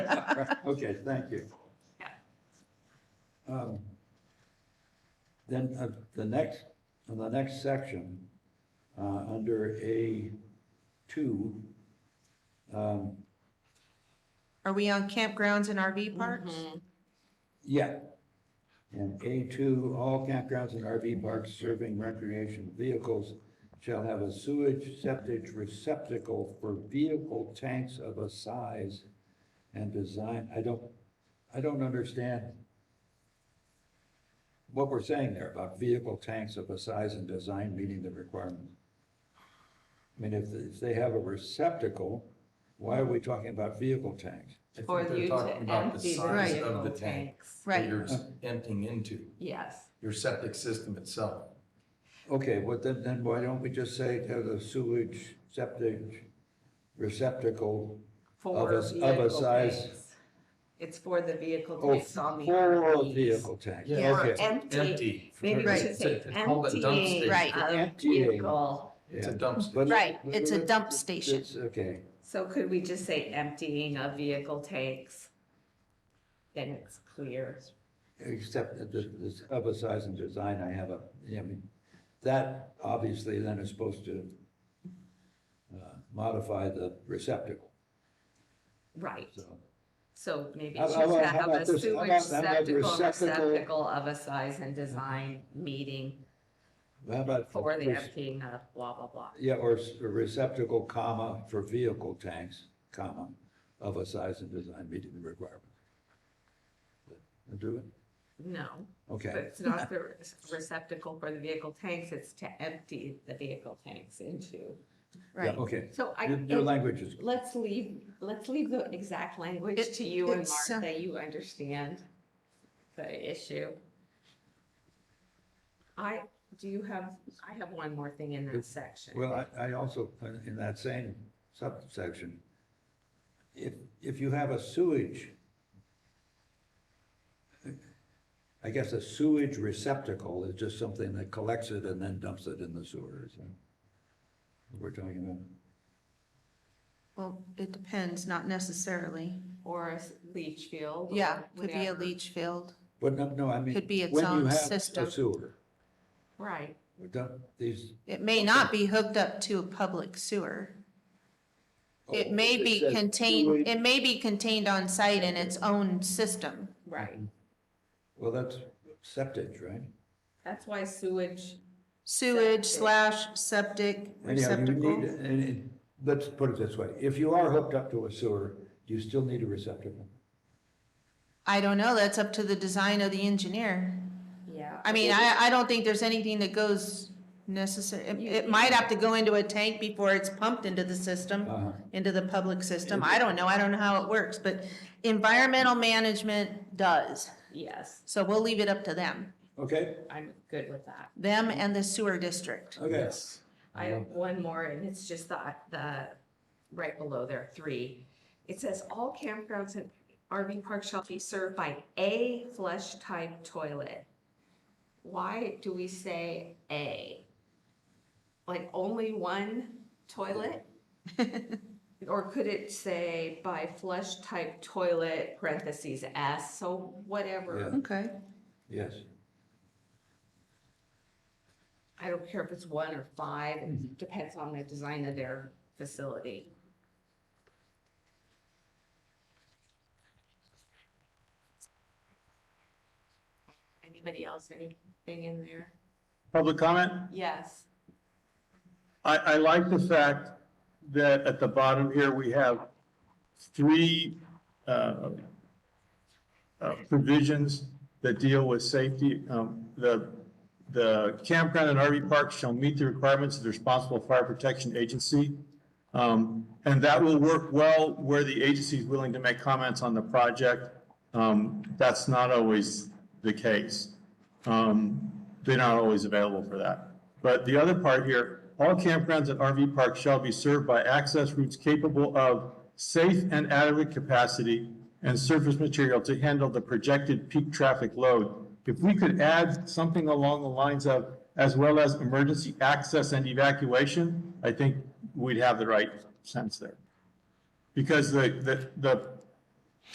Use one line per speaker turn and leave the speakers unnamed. Okay, thank you.
Yeah.
Um, Then uh, the next, in the next section, uh, under A two, um,
Are we on campgrounds and RV parks?
yeah. And A two, all campgrounds and RV parks serving recreation vehicles shall have a sewage septic receptacle for vehicle tanks of a size and design, I don't, I don't understand what we're saying there about vehicle tanks of a size and design meeting the requirements. I mean, if, if they have a receptacle, why are we talking about vehicle tanks?
I
For
think they're
you to
talking about the
empty the
size
Right.
Of
vehicle
the tank
tanks.
that
Right.
you're emptying into,
Yes,
your septic system itself.
Okay, well, then, then why don't we just say to the sewage septic receptacle
for
a- of a
vehicle
size-
tanks. It's for the vehicle
oh,
tanks on the
full of
RVs.
vehicle tanks?
Yeah.
Or
Okay,
empty,
Empty.
maybe we
Right.
should say
It's called a dump
emptying
station.
Right.
of
Emptying.
vehicle.
It's a
yeah.
dump station.
But-
Right, it's a dump station.
It's- Okay,
So could we just say emptying of vehicle tanks? Then it's clear.
except that the, this other size and design, I have a, I mean, that obviously then is supposed to uh, modify the receptacle,
Right,
so.
so maybe
How
it should
about- how
have
about
a
this? How about-
sewage
how about
receptacle,
receptacle-
receptacle of a size and design meeting
How about?
for the emptying of blah, blah, blah.
Yeah, or s- a receptacle, comma, for vehicle tanks, comma, of a size and design meeting the requirements. Do it?
No, but
Okay,
it's not the receptacle for the vehicle tanks, it's to empty the vehicle tanks into.
yeah,
Right.
okay.
So I,
Your, your language is,
let's leave, let's leave the exact language
It-
to you and
it's, uh,
Martha, you understand the issue. I, do you have, I have one more thing in that section.
well, I, I also, put in that same subsection, if, if you have a sewage, I guess a sewage receptacle is just something that collects it and then dumps it in the sewer, so. We're talking about.
Well, it depends, not necessarily.
Or a s- leach field. or
Yeah, could be a
whatever.
leach field.
But no, no, I mean.
Could be its
when you
own
have a
system.
Sewer,
Right,
we don't- these.
It may not be hooked up to a public sewer. It may be
Oh, says
contained,
sewage.
it may be contained on site in its own system.
right.
Mm-hmm. Well, that's septic, right?
That's why sewage,
Sewage
Septic.
slash septic
Anyhow, you need,
receptacle.
and it, let's put it this way, if you are hooked up to a sewer, you still need a receptacle.
I don't know, that's up to the design of the engineer.
yeah.
I mean, I, I don't think there's anything that goes necessary. It, it might have to go into a tank before it's pumped into the system.
Uh-huh.
into the public system. I don't know, I don't know how it works, but environmental management does.
Yes,
So we'll leave it up to them,
Okay,
I'm good with that.
them and the sewer district.
okay.
I have one more, and it's just the, the, right below there, three. It says all campgrounds and RV parks shall be served by a flush type toilet. Why do we say a? Like only one toilet? Or could it say by flush type toilet parentheses S, so whatever.
Yeah.
Okay.
Yes,
I don't care if it's one or five, it depends on the design of their facility. Anybody else, anything in there?
Public comment?
Yes,
I, I like the fact that at the bottom here, we have three, uh, uh, provisions that deal with safety. Um, the, the campground and RV park shall meet the requirements of the responsible fire protection agency. Um, and that will work well where the agency is willing to make comments on the project. Um, that's not always the case. Um, they're not always available for that. But the other part here, all campgrounds and RV parks shall be served by access routes capable of safe and adequate capacity and surface material to handle the projected peak traffic load. If we could add something along the lines of, as well as emergency access and evacuation, I think we'd have the right sense there. Because the, the, the